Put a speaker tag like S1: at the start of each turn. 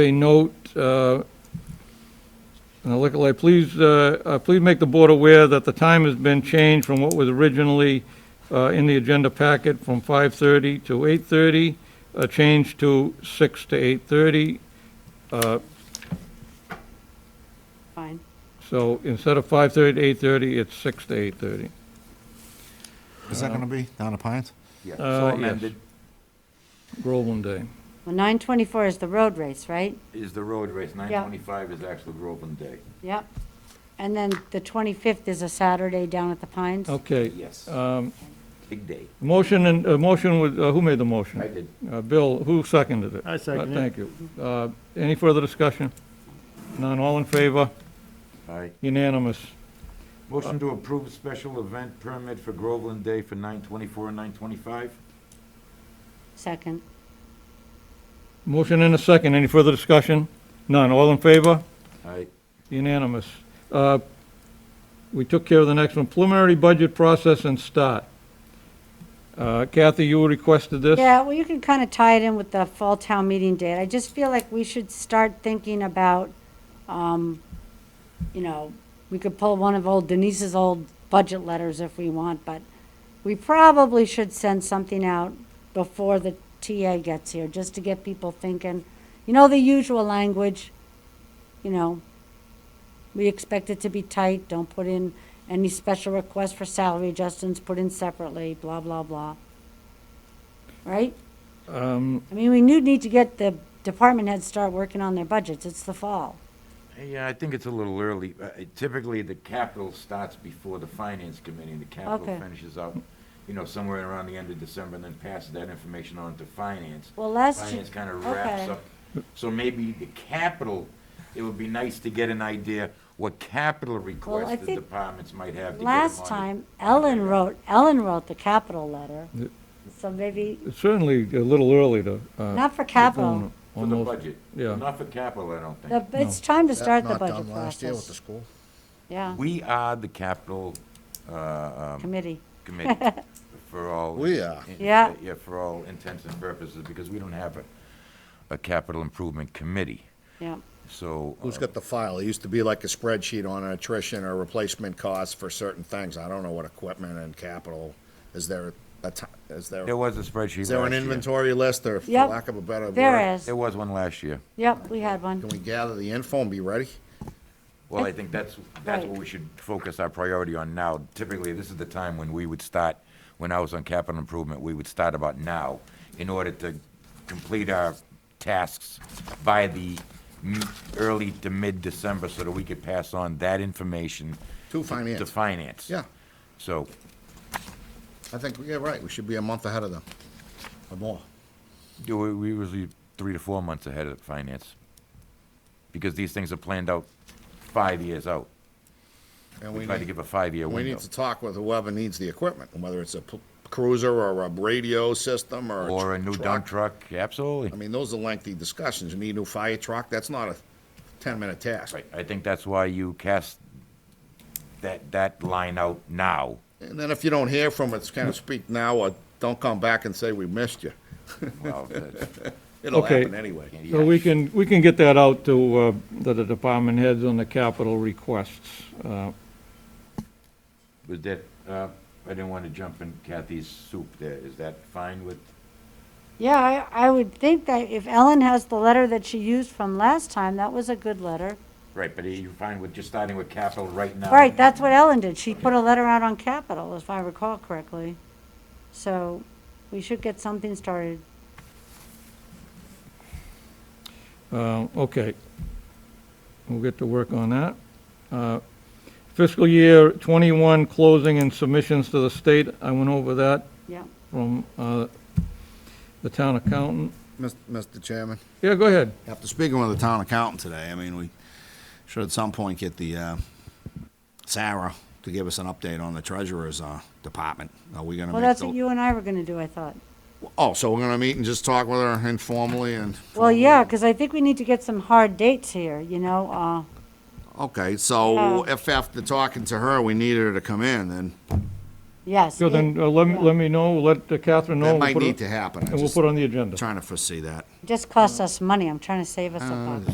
S1: a note, uh, and the liquor license, please, uh, uh, please make the board aware that the time has been changed from what was originally uh, in the agenda packet from 5:30 to 8:30, a change to 6 to 8:30. Uh,
S2: Fine.
S1: So instead of 5:30 to 8:30, it's 6 to 8:30.
S3: Is that going to be down at Pines?
S4: Yeah,
S1: Uh,
S4: so
S1: yes.
S4: amended
S1: Groveland Day.
S2: Well, 924 is the road race, right?
S4: is the road race, nine twenty-five is actual Groveland Day.
S2: Yep. And then the 25th is a Saturday down at the Pines?
S1: Okay.
S4: Yes,
S1: Um,
S4: big day.
S1: Motion and, uh, motion with, uh, who made the motion?
S4: I did,
S1: Uh, Bill, who seconded it?
S5: I seconded it.
S1: Uh, Thank you. Uh, Any further discussion? None, all in favor?
S4: aye.
S1: Unanimous. uh,
S4: Motion to approve special event permit for Groveland Day for nine twenty-four and nine twenty-five?
S2: Second.
S1: Motion and a second, any further discussion? None, all in favor?
S4: Aye.
S1: Unanimous. Uh, We took care of the next one, preliminary budget process and start. Uh, Kathy, you requested this?
S2: Yeah, well, you can kind of tie it in with the fall town meeting date. I just feel like we should start thinking about, um, you know, we could pull one of old Denise's old budget letters if we want, but we probably should send something out before the TA gets here, just to get people thinking. You know, the usual language, you know, we expect it to be tight, don't put in any special requests for salary adjustments, put in separately, blah, blah, blah. Right?
S1: Um,
S2: I mean, we do need to get the department heads start working on their budgets. It's the fall.
S4: Yeah, I think it's a little early. Uh, Typically, the capital starts before the finance committee, and the capital
S2: Okay.
S4: finishes up, you know, somewhere around the end of December, and then passes that information on to finance.
S2: Well, last year,
S4: Finance kind of wraps
S2: okay.
S4: up. So maybe the capital, it would be nice to get an idea what capital requests the
S2: think
S4: departments might have to get them
S2: last
S4: on.
S2: time, Ellen wrote, Ellen wrote the capital letter. So maybe,
S1: It's certainly a little early to. uh,
S2: not for
S1: get going
S2: capital,
S4: For
S1: on
S4: the
S1: those.
S4: budget.
S1: Yeah.
S4: Not for capital, I don't think.
S2: The- it's time to
S3: That
S2: start the
S3: not done
S2: budget
S3: Last year with the
S2: process.
S3: school.
S2: Yeah,
S4: We are the capital uh, um,
S2: committee.
S4: committee for all.
S3: We are.
S4: in-
S2: Yeah.
S4: Yeah, for all intents and purposes, because we don't have a, a capital improvement committee,
S2: Yeah,
S4: so. uh,
S3: Who's got the file? It used to be like a spreadsheet on attrition or replacement costs for certain things. I don't know what equipment and capital. Is there a ti- is there,
S4: There was a spreadsheet
S3: is there an
S4: last year.
S3: inventory list or for
S2: Yep.
S3: lack of a better word?
S2: there is.
S4: There was one last year.
S2: Yep, we had
S3: Can
S2: one.
S3: we gather the info and be ready?
S4: Well, I think that's, that's what
S2: Right.
S4: we should focus our priority on now. Typically, this is the time when we would start, when I was on capital improvement, we would start about now in order to complete our tasks by the m- early to mid-December so that we could pass on that information.
S3: To
S4: To
S3: finance.
S4: finance.
S3: Yeah,
S4: So,
S3: I think, yeah, right. We should be a month ahead of them or more.
S4: do we, we usually three to four months ahead of finance. Because these things are planned out five years out.
S3: And
S4: We
S3: we
S4: try to
S3: need,
S4: give a five-year
S3: we
S4: window.
S3: need to talk with whoever needs the equipment, whether it's a p- cruiser or a radio system or a
S4: Or a new dump
S3: truck.
S4: truck, absolutely.
S3: I mean, those are lengthy discussions. You need a new fire truck, that's not a ten-minute task.
S4: Right, I think that's why you cast that, that line out now.
S3: And then if you don't hear from us, kind of speak now, or don't come back and say we missed you.
S4: Well, that's-
S3: It'll
S1: Okay.
S3: happen anyway.
S1: So we can, we can get that out to uh, the the department heads on the capital requests. Uh,
S4: Was that, uh, I didn't want to jump in Kathy's soup there, is that fine with?
S2: Yeah, I, I would think that if Ellen has the letter that she used from last time, that was a good letter.
S4: Right, but are you fine with just starting with capital right now?
S2: Right, that's what Ellen did. She put a letter out on Capitol, if I recall correctly. So we should get something started.
S1: uh, Okay. We'll get to work on that. Uh, Fiscal year 21 closing and submissions to the state, I went over that
S2: Yeah.
S1: from uh, the town accountant.
S3: Mis- Mr. Chairman,
S1: Yeah, go ahead.
S3: after speaking with the town accountant today, I mean, we should at some point get the, uh, Sarah to give us an update on the treasurer's, uh, department. Are we gonna
S2: Well,
S3: make
S2: that's
S3: the-
S2: what you and I were gonna do, I thought.
S3: Oh, so we're gonna meet and just talk with her informally and?
S2: Well, yeah, because I think we need to get some hard dates here, you know, uh,
S3: Okay, so
S2: Yeah. Oh.
S3: if after talking to her, we needed her to come in, then
S2: Yes.
S1: So then uh, let, me- let me know, let uh, Catherine know.
S3: That
S1: we'll
S3: might
S1: put it-
S3: need to happen. I
S1: And we'll
S3: just-
S1: put it on the agenda.
S3: Trying to foresee that.
S2: It Just costs us money. I'm trying to save us a buck.